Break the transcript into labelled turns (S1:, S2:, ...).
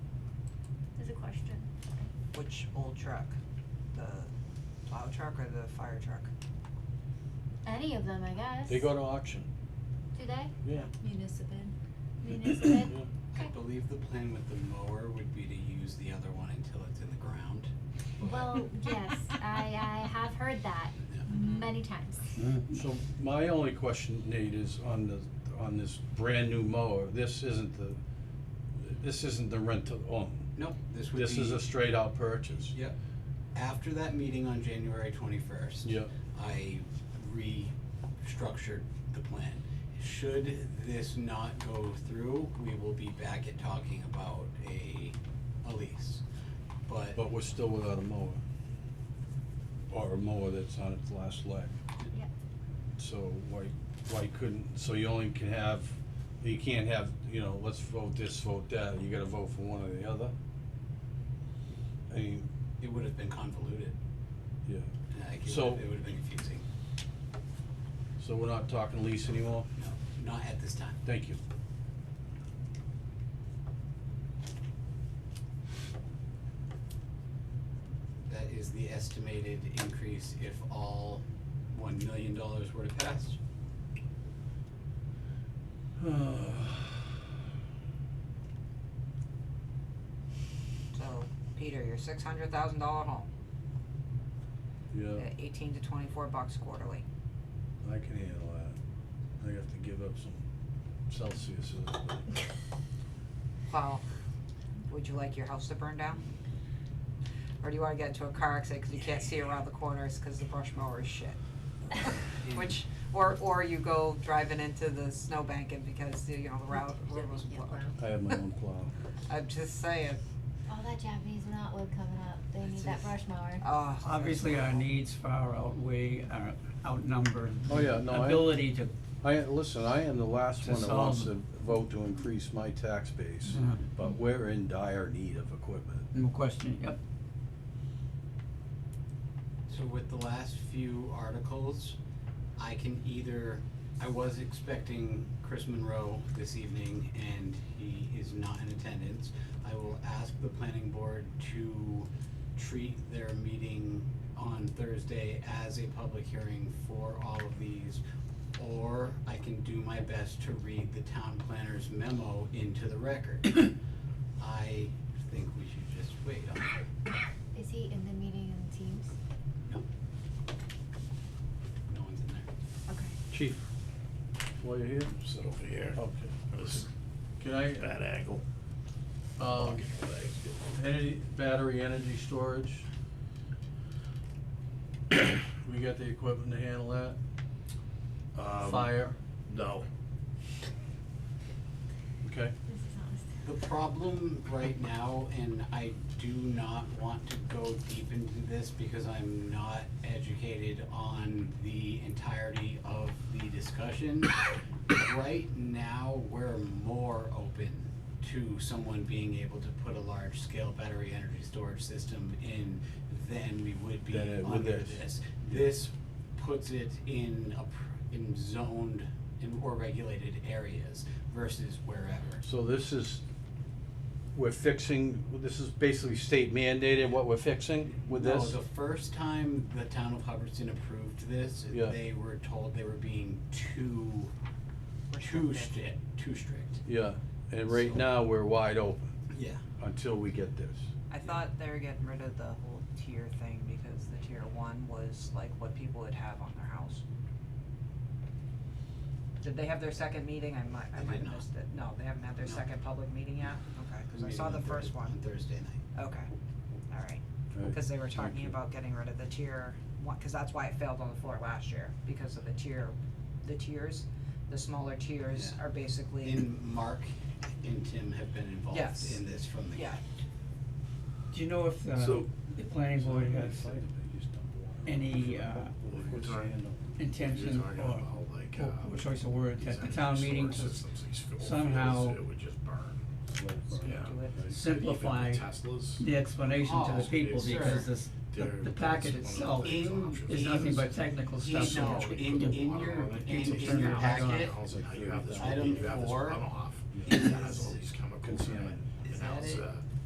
S1: question.
S2: Which old truck? The plow truck or the fire truck?
S1: Any of them, I guess.
S3: They go to auction,
S1: Do they?
S3: yeah.
S4: Municipal.
S1: Municipal?
S3: Yeah.
S5: I
S1: Okay.
S5: believe the plan with the mower would be to use the other one until it's in the ground. but-
S1: Well, yes, I, I have heard that
S5: Yeah.
S1: many times.
S3: So my only question, Nate, is on the, on this brand new mower, this isn't the, this isn't the rent to own.
S5: Nope, this would be.
S3: This is a straight out purchase.
S5: Yep. After that meeting on January twenty-first.
S3: Yeah,
S5: I restructured the plan. Should this not go through, we will be back at talking about a, a lease. But,
S3: but we're still without a mower. Or a mower that's on its last leg.
S1: Yeah.
S3: So why, why couldn't, so you only can have, you can't have, you know, let's vote this, vote that, you gotta vote for one or the other? I mean,
S5: it would have been convoluted,
S3: yeah,
S5: like, it
S3: So-
S5: would, it would have been confusing,
S3: so we're not talking lease anymore?
S5: no, not at this time.
S3: Thank you.
S5: That is the estimated increase if all one million dollars were to pass.
S2: So, Peter, your six hundred thousand dollar home,
S3: Yeah,
S2: at eighteen to twenty-four bucks quarterly.
S3: I can handle that. I have to give up some Celsius.
S2: Well, would you like your house to burn down? Or do you wanna get into a car accident 'cause you can't see around the corners 'cause the brush mower is shit? Which, or, or you go driving into the snowbank and because, you know, the route, road was
S4: Yeah,
S2: blocked.
S4: wow.
S3: I have my own plow.
S2: I'm just saying,
S1: All that Japanese knotwood coming up, they need
S2: It's
S1: that
S2: just-
S1: brush mower.
S2: oh.
S6: Obviously, our needs far outweigh, our outnumber.
S3: Oh, yeah,
S6: the
S3: no, I-
S6: Ability to,
S3: I, listen, I am the last
S6: To
S3: one that wants to
S6: solve- Mm-hmm.
S3: vote to increase my tax base,
S6: Yeah.
S3: but we're in dire need of equipment.
S6: no question, yep.
S5: So with the last few articles, I can either, I was expecting Chris Monroe this evening and he is not in attendance. I will ask the planning board to treat their meeting on Thursday as a public hearing for all of these. Or I can do my best to read the town planner's memo into the record. I think we should just wait on it.
S1: Is he in the meeting in Teams?
S5: No one's in there.
S1: Okay.
S3: Chief, while you're here?
S7: Sit over here.
S3: Okay.
S7: This
S3: Can I,
S7: bad angle.
S3: um, energy, battery energy storage? We got the equipment to handle that?
S7: Um,
S3: Fire,
S7: No.
S3: okay?
S1: This is honest.
S5: The problem right now, and I do not want to go deep into this because I'm not educated on the entirety of the discussion. Right now, we're more open to someone being able to put a large-scale battery energy storage system in than we would be
S3: Than it would
S5: under
S3: this.
S5: this. This puts it in a, pr- in zoned and or regulated areas versus wherever.
S3: So this is, we're fixing, this is basically state mandated what we're fixing with this?
S5: No, the first time the town of Hubbardston approved this,
S3: Yeah.
S5: they were told they were being too, too
S2: Restrictive.
S5: strict, too strict.
S3: Yeah, and right
S5: So-
S3: now, we're wide open
S5: Yeah.
S3: until we get this.
S2: I thought they were getting rid of the whole tier thing because the tier one was like what people would have on their house. Did they have their second meeting? I might, I
S5: They
S2: might
S5: did
S2: have
S5: not.
S2: missed it. No, they haven't had their
S5: No.
S2: second public meeting yet? Okay, cause I saw the first
S5: On
S2: one.
S5: Thursday night.
S2: Okay, alright. Cause they were talking about getting rid of the tier one, cause that's why it failed on the floor last year, because of the tier, the tiers. The smaller tiers
S5: Yeah.
S2: are basically,
S5: And Mark and Tim have been involved
S2: Yes.
S5: in this from the
S2: yeah,
S5: get.
S6: Do you know if uh,
S7: So-
S6: the planning board has any uh, intention or, or
S7: uh,
S6: or choice of words at the town meeting to somehow
S7: It would just burn. Yeah.
S2: do it.
S6: simplify
S7: Even Teslas.
S6: the explanation to the
S5: Oh,
S6: people
S7: it's-
S6: because this, the,
S7: they're-
S6: the
S7: that's
S6: packet
S7: one of the
S6: itself
S7: things
S5: In-
S7: options.
S6: is nothing but technical stuff.
S7: So
S5: No,
S7: much we
S5: in-
S7: put
S5: in
S7: water
S5: your-
S7: on it,
S5: in-
S7: it takes
S6: in your
S7: out.
S6: packet,
S7: Now you have this-
S5: item
S7: you have this
S5: four
S7: runoff
S5: is-
S7: that has all these chemicals in it,
S5: Is
S7: and now
S5: that
S7: it's uh,
S5: it?
S7: a